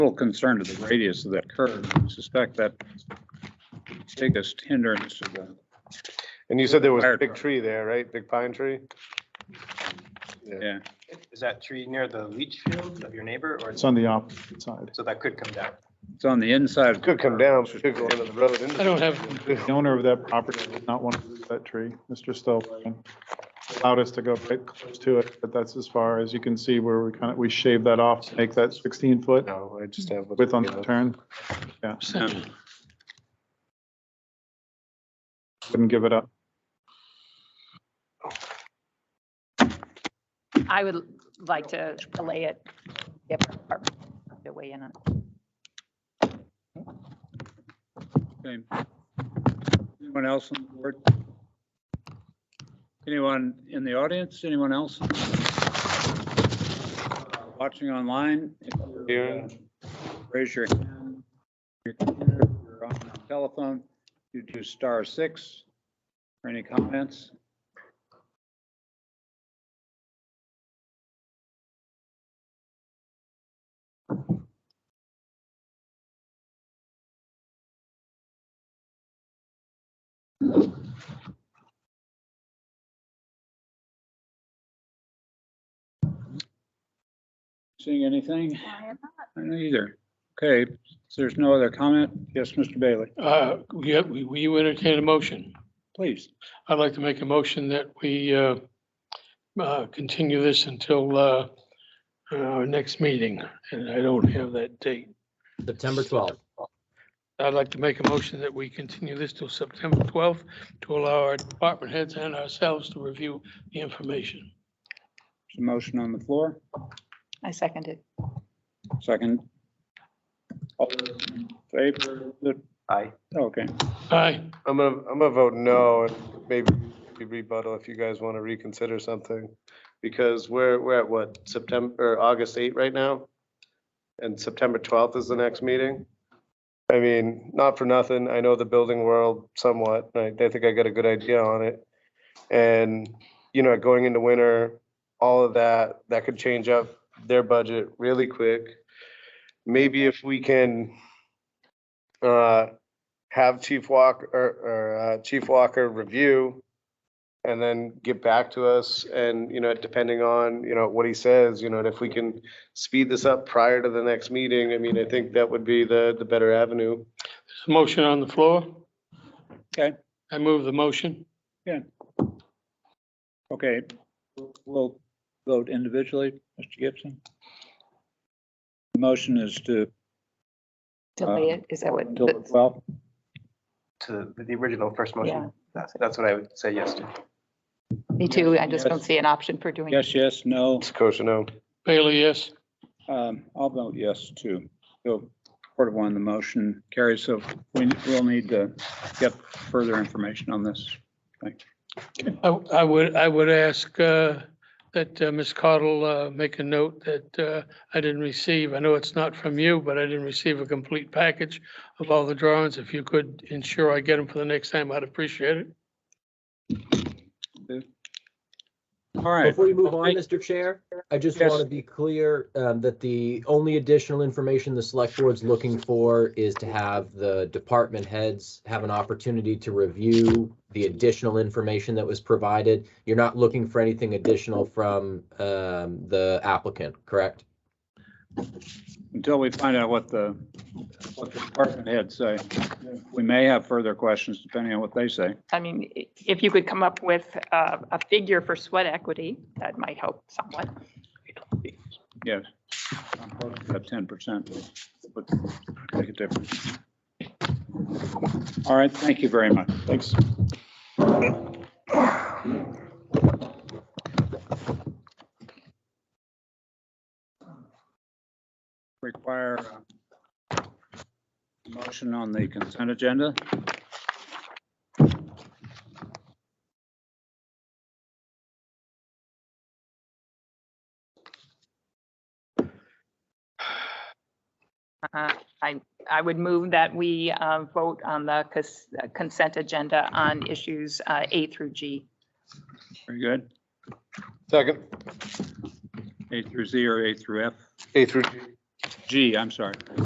little concerned of the radius of that curve. I Suspect that biggest hindrance of the, And you said there was a Fire big truck. tree there, right? Big pine tree? yeah. Is that tree near the leach field of your neighbor or, It's on the opposite side. so that could come down? It's on the inside. of the Could come curve, down, which is could go into the road. I don't have, The owner of that property did not want to lose that tree, Mr. Stillwagon. Allowed us to go right close to it, but that's as far as you can see where we kind of, we shaved that off, to make that sixteen foot No, I just have. width on the turn. yeah. Wouldn't give it up. I would like to delay it, give our department to weigh in on it. Okay. Anyone else on the board? Anyone in the audience? Anyone else? Uh, Watching online? If you're, uh, Here. Raise your hand. If you're on the Telephone, you do star six. For any comments? Seeing anything? I don't either. Okay, so there's no other comment? Yes, Mr. Bailey, uh, yeah, we, we entertain a motion. please. I'd like to make a motion that we, uh, uh, continue this until, uh, our next meeting, and I don't have that date. September twelfth. I'd like to make a motion that we continue this till September twelfth to allow our department heads and ourselves to review the information. There's a motion on the floor, I second it. second. All those in Favor, the, Aye. okay, Aye. I'm gonna, I'm gonna vote no and maybe rebuttal if you guys want to reconsider something. Because we're, we're at what, September, or August 8 right now? And September 12th is the next meeting? I mean, not for nothing, I know the building world somewhat, and I, I think I got a good idea on it. And, you know, going into winter, all of that, that could change up their budget really quick. Maybe if we can, uh, have Chief Walker, or, or uh, Chief Walker review and then get back to us and, you know, depending on, you know, what he says, you know, and if we can speed this up prior to the next meeting, I mean, I think that would be the, the better avenue. There's a motion on the floor. Okay. I move the motion. okay. We'll vote individually, Mr. Gibson. The Motion is to, Delay it, is that what? till the 12th. To the original first Yeah. motion? That's, that's what I would say yes to. Me too, I just don't see an option for doing it. yes, yes, no, Sakosha, no. Bailey, yes. um, I'll vote yes too. So part of one, the motion carries, so we will need to get further information on this. I, I would, I would ask, uh, that, uh, Ms. Cottle, uh, make a note that, uh, I didn't receive, I know it's not from you, but I didn't receive a complete package of all the drawings. If you could ensure I get them for the next time, I'd appreciate it. All right, Before you move on, Hey. Mr. Chair, I just Yes. want to be clear um, that the only additional information the select board's looking for is to have the department heads have an opportunity to review the additional information that was provided. You're not looking for anything additional from um, the applicant, correct? until we find out what the, what the department heads say. We may have further questions depending on what they say. I mean, i- if you could come up with uh, a figure for sweat equity, that might help somewhat. Yes. About ten percent would make a difference. All right, thank you very much. Thanks. Require uh, a motion on the consent agenda. Uh, I, I would move that we uh, vote on the cons- uh, consent agenda on issues uh, A through G. Very good. Second, A through Z or A through F. A through G. G, I'm sorry.